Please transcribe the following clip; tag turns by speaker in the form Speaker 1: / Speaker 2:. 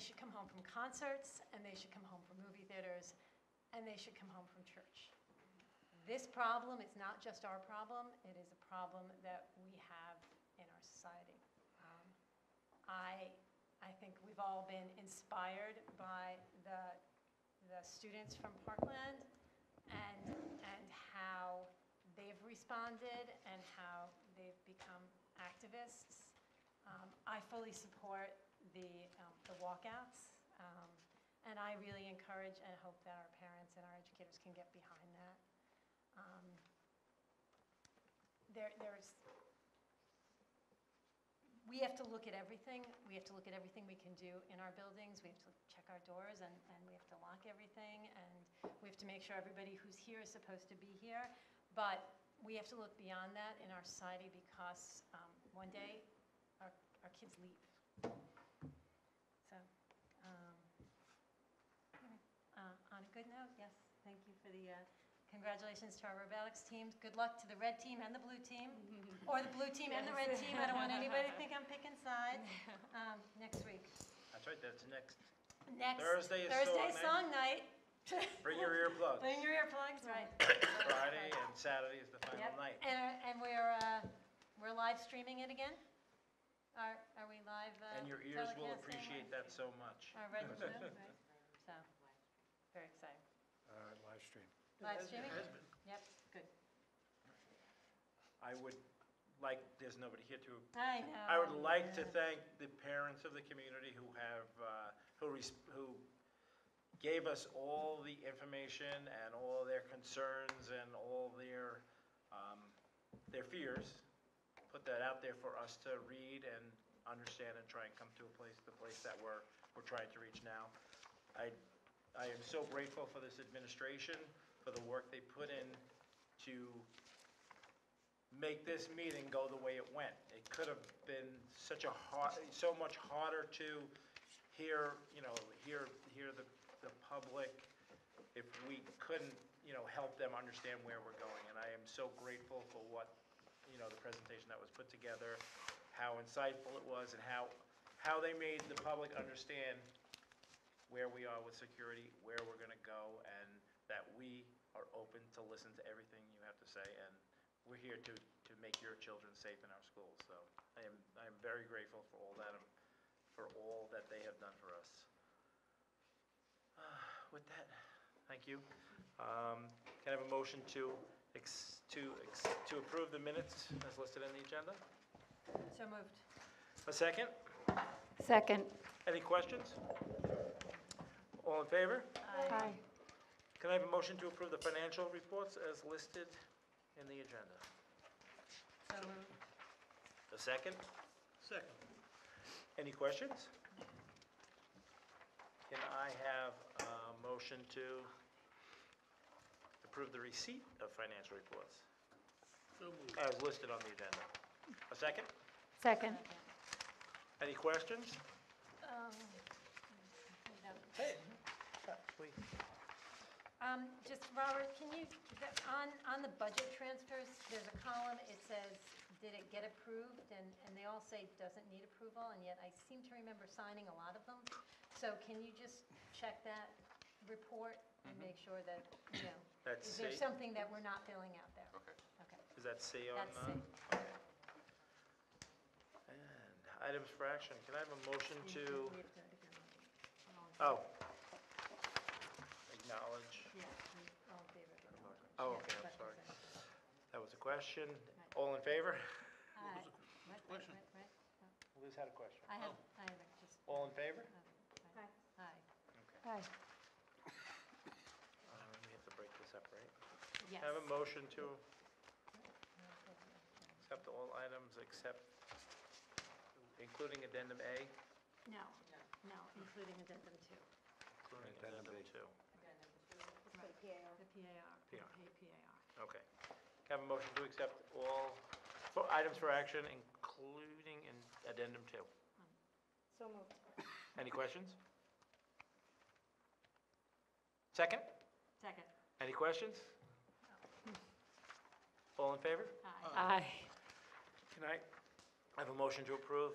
Speaker 1: should come home from concerts, and they should come home from movie theaters, and they should come home from church. This problem is not just our problem, it is a problem that we have in our society. Um, I, I think we've all been inspired by the, the students from Parkland and, and how they've responded and how they've become activists. Um, I fully support the, um, the walkouts, um, and I really encourage and hope that our parents and our educators can get behind that. Um, There, there's, we have to look at everything, we have to look at everything we can do in our buildings, we have to check our doors, and, and we have to lock everything, and we have to make sure everybody who's here is supposed to be here, but we have to look beyond that in our society, because um, one day, our, our kids leave. So, um, anyway, uh, on a good note, yes, thank you for the, uh, congratulations to our robotics teams. Good luck to the red team and the blue team, or the blue team and the red team. I don't want anybody to think I'm picking sides. Um, Next week.
Speaker 2: That's right, that's next.
Speaker 1: Next.
Speaker 2: Thursday is
Speaker 1: Thursday song
Speaker 2: song
Speaker 1: night.
Speaker 2: Bring your earplugs.
Speaker 1: Bring your earplugs, right.
Speaker 2: Friday and Saturday is the final
Speaker 1: Yep.
Speaker 2: night.
Speaker 1: And, and we're, uh, we're live streaming it again? Are, are we live? uh,
Speaker 2: And your ears will
Speaker 1: telecasting?
Speaker 2: appreciate that so much.
Speaker 1: Our red team, so, very exciting.
Speaker 3: uh, live stream.
Speaker 1: Live streaming? Yep, good.
Speaker 2: I would like, there's nobody here to,
Speaker 1: I know.
Speaker 2: I would like to thank the parents of the community who have, uh, who, res- who gave us all the information and all their concerns and all their, um, their fears. Put that out there for us to read and understand and try and come to a place, the place that we're, we're trying to reach now. I, I am so grateful for this administration, for the work they put in to make this meeting go the way it went. It could have been such a hard, so much harder to hear, you know, hear, hear the, the public if we couldn't, you know, help them understand where we're going. And I am so grateful for what, you know, the presentation that was put together, how insightful it was, and how, how they made the public understand where we are with security, where we're gonna go, and that we are open to listen to everything you have to say, and we're here to, to make your children safe in our schools, so I am, I am very grateful for all that, um, for all that they have done for us. Ah, With that, thank you. Um, Can I have a motion to, ex- to, ex- to approve the minutes as listed in the agenda?
Speaker 1: So moved.
Speaker 2: A second?
Speaker 4: Second.
Speaker 2: Any questions? All in favor?
Speaker 4: Aye.
Speaker 2: Can I have a motion to approve the financial reports as listed in the agenda?
Speaker 1: So moved.
Speaker 2: A second?
Speaker 3: Second.
Speaker 2: Any questions? Can I have a motion to approve the receipt of financial reports
Speaker 3: So moved.
Speaker 2: as listed on the agenda? A second?
Speaker 4: Second.
Speaker 2: Any questions?
Speaker 1: Um, no.
Speaker 2: Wait.
Speaker 1: Um, just, Robert, can you, the- on, on the budget transfers, there's a column, it says, did it get approved? And, and they all say doesn't need approval, and yet I seem to remember signing a lot of them. So can you just check that report and make sure that, you know,
Speaker 2: That's
Speaker 1: is there
Speaker 2: Mm-hmm. safe.
Speaker 1: something that we're not filling out there?
Speaker 5: Okay.
Speaker 1: Okay,
Speaker 2: Does that say on?
Speaker 1: that's
Speaker 2: uh,
Speaker 1: safe.
Speaker 2: And items for action, can I have a motion to,
Speaker 1: We have to do it again.
Speaker 2: oh. Acknowledge,
Speaker 1: Yeah, we- all in favor of it.
Speaker 2: oh, okay, I'm
Speaker 1: But-
Speaker 2: sorry. That was a question. All in favor?
Speaker 1: Uh, right, right, right, right.
Speaker 2: Liz had a question.
Speaker 1: I have, I have it, just. um,
Speaker 2: All in favor?
Speaker 1: Aye. Aye.
Speaker 4: Aye.
Speaker 2: Um, We have to break this up, right?
Speaker 1: Yes.
Speaker 2: Can I Have a motion to accept all items except, including addendum A,
Speaker 1: No, no, including addendum two,
Speaker 2: including
Speaker 3: Addendum B.
Speaker 2: addendum two.
Speaker 1: the PAR, the
Speaker 2: PR.
Speaker 1: PAR.
Speaker 2: Okay. Can I Have a motion to accept all fo- items for action, including in addendum two.
Speaker 4: So moved.
Speaker 2: Any questions? Second?
Speaker 1: Second.
Speaker 2: Any questions? All in favor?
Speaker 1: Aye.
Speaker 4: Aye.
Speaker 2: Can I have a motion to approve